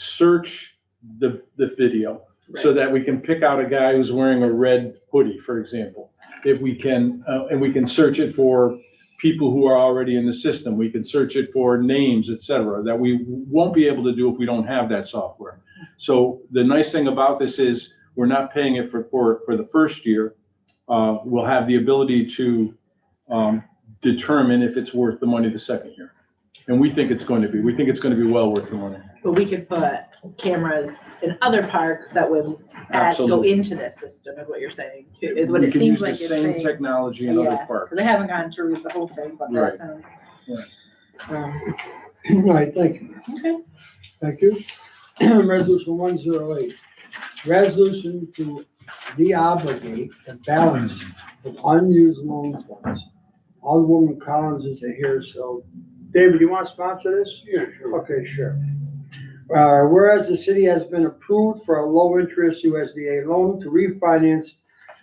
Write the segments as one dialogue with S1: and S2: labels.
S1: search the, the video so that we can pick out a guy who's wearing a red hoodie, for example. If we can, uh, and we can search it for people who are already in the system. We can search it for names, et cetera, that we won't be able to do if we don't have that software. So the nice thing about this is we're not paying it for, for, for the first year. Uh, we'll have the ability to, um, determine if it's worth the money the second year. And we think it's going to be. We think it's going to be well worth the money.
S2: But we could put cameras in other parks that would add, go
S1: Absolutely.
S2: into this system, is what you're saying, too, is what
S1: We
S2: it
S1: can use
S2: seems
S1: the
S2: like you're
S1: same
S2: saying.
S1: Technology in other
S2: Yeah,
S1: parks.
S2: Cause I haven't gotten to read the whole thing, but
S1: Right.
S2: that sounds. Um,
S3: Right, thank you.
S2: Okay.
S3: Thank you. Resolution one zero eight, resolution to deobligate the balance of unused loan funds. Alderwoman Collins isn't here, so, David, you want to sponsor this?
S4: Yeah, sure.
S3: Okay, sure. Uh, whereas the city has been approved for a low-interest USDA loan to refinance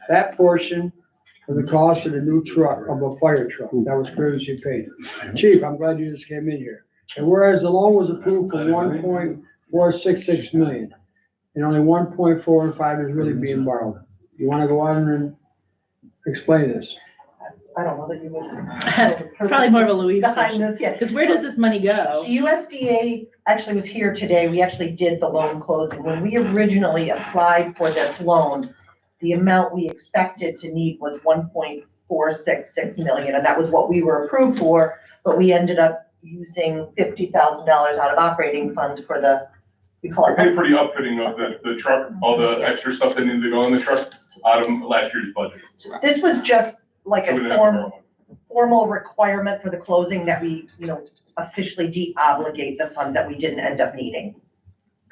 S3: that portion of the cost of the new truck, of a fire truck, that was previously paid. Chief, I'm glad you just came in here. And whereas the loan was approved for one point four six six million, and only one point four and five is really being borrowed. You wanna go on and explain this?
S5: I don't know that you would.
S2: It's probably more of a Louise
S5: Behind
S2: question,
S5: this, yeah.
S2: cause where does this money go?
S5: The USDA actually was here today. We actually did the loan closing. When we originally applied for this loan, the amount we expected to need was one point four six six million, and that was what we were approved for. But we ended up using fifty thousand dollars out of operating funds for the, we call
S4: I
S5: it,
S4: paid for the outfitting of the, the truck, all the extra stuff that needed to go in the truck out of last year's budget.
S5: this was just like
S4: So we
S5: a
S4: didn't have to
S5: form
S4: borrow money.
S5: formal requirement for the closing that we, you know, officially de-obligate the funds that we didn't end up needing.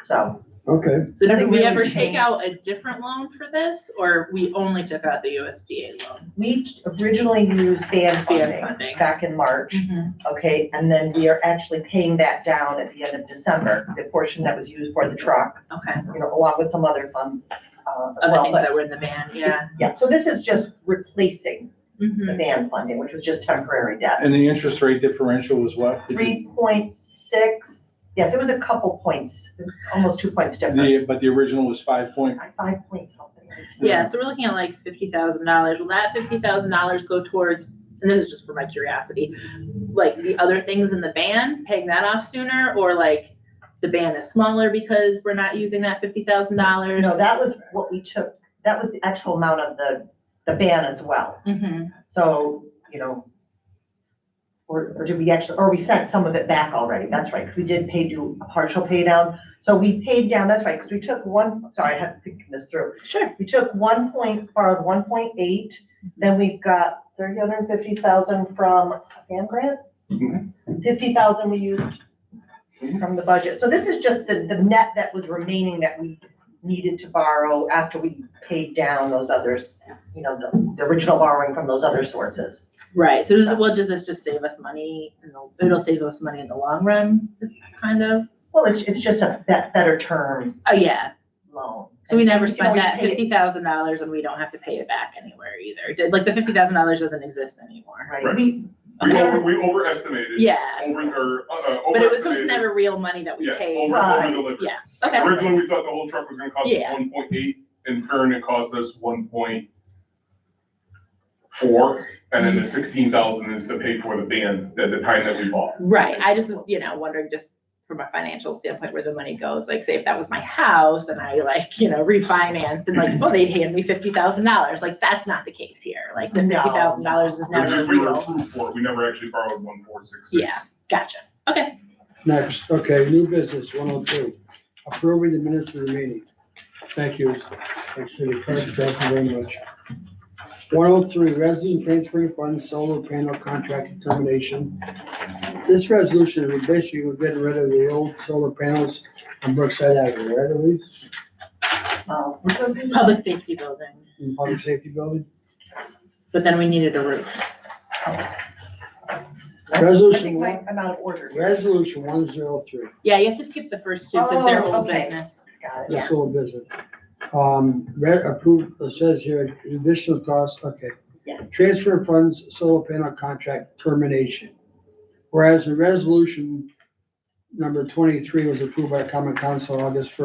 S5: So,
S3: Okay,
S2: So did
S5: Nothing
S2: we
S5: really
S2: ever take
S5: changed.
S2: out a different loan for this, or we only took out the USDA loan?
S5: we originally used
S2: Fan
S5: band funding
S2: funding.
S5: back in March,
S2: Mm-hmm.
S5: okay? And then we are actually paying that down at the end of December, the portion that was used for the truck,
S2: Okay,
S5: you know, along with some other funds, uh, as
S2: other
S5: well.
S2: things
S5: But,
S2: that were in the ban, yeah.
S5: yeah, so this is just replacing
S2: Mhm.
S5: the band funding, which was just temporary debt.
S1: And the interest rate differential was what? Did you-
S5: Three point six, yes, it was a couple points, it was almost two points different.
S1: The, but the original was five point,
S5: Five point something.
S2: Yeah, so we're looking at like fifty thousand dollars. Will that fifty thousand dollars go towards, and this is just for my curiosity, like the other things in the ban, paying that off sooner, or like the ban is smaller because we're not using that fifty thousand dollars?
S5: No, that was what we took, that was the actual amount of the, the ban as well.
S2: hmm
S5: So, you know, or, or did we actually, or we sent some of it back already, that's right, because we did pay do a partial pay down. So we paid down, that's right, because we took one, sorry, I have to think this through.
S2: Sure.
S5: We took one point, borrowed one point eight, then we got three hundred and fifty thousand from Sam Grant. Fifty thousand we used from the budget. So this is just the, the net that was remaining that we needed to borrow after we paid down those others, you know, the, the original borrowing from those other sources.
S2: Right, so does, well, does this just save us money? in the- It'll save us money in the long run, it's kind of,
S5: Well, it's, it's just a bet, better term
S2: oh, yeah.
S5: loan.
S2: So we never
S5: And you can
S2: spent
S5: always
S2: that
S5: pay it-
S2: fifty thousand dollars and we don't have to pay it back anywhere either. Did- Like the fifty thousand dollars doesn't exist anymore.
S5: Right,
S4: Right.
S5: we,
S4: We
S2: Okay.
S4: over, we overestimated.
S2: Yeah,
S4: Over, or, uh, uh, overestimated.
S2: but it was, it was never real money that we
S4: Yes,
S2: paid.
S4: over,
S5: Right.
S4: over delivered.
S2: Yeah, okay.
S4: Originally, we thought the whole truck was gonna cost us
S2: Yeah.
S4: one point eight, in turn, it cost us one point four, and
S2: Mm-hmm.
S4: then the sixteen thousand is to pay for the van at the time that we bought.
S2: Right, I just was, you know, wondering just from a financial standpoint where the money goes, like say if that was my house and I like, you know, refinanced and like, well, they'd hand me fifty thousand dollars, like that's not the case here, like the
S5: No.
S2: fifty thousand dollars is
S4: It was
S2: never
S4: just, we were
S2: real.
S4: approved for it, we never actually borrowed one four six six.
S2: Yeah, gotcha, okay,
S3: next, okay, new business, one oh two, approving the minutes of the meeting. Thank you, thanks for the clerk, thank you very much. One oh three, resolution transferring funds, solar panel contract termination. This resolution, we basically we're getting rid of the old solar panels on Brookside Avenue, right, Elise?
S5: um,
S2: public safety building,
S3: In public safety building.
S2: but then we needed a roof.
S5: I
S3: Resolution
S5: think
S3: one,
S5: my- I'm out of order.
S3: resolution one zero three,
S2: Yeah, you have to skip the first two because they're
S5: Oh,
S2: old
S5: okay.
S2: business.
S5: Got it.
S2: Yeah.
S3: that's all business. Um, re- approved, it says here, additional costs, okay.
S2: Yeah.
S3: Transfer funds, solar panel contract termination. Whereas the resolution number twenty-three was approved by common council August first.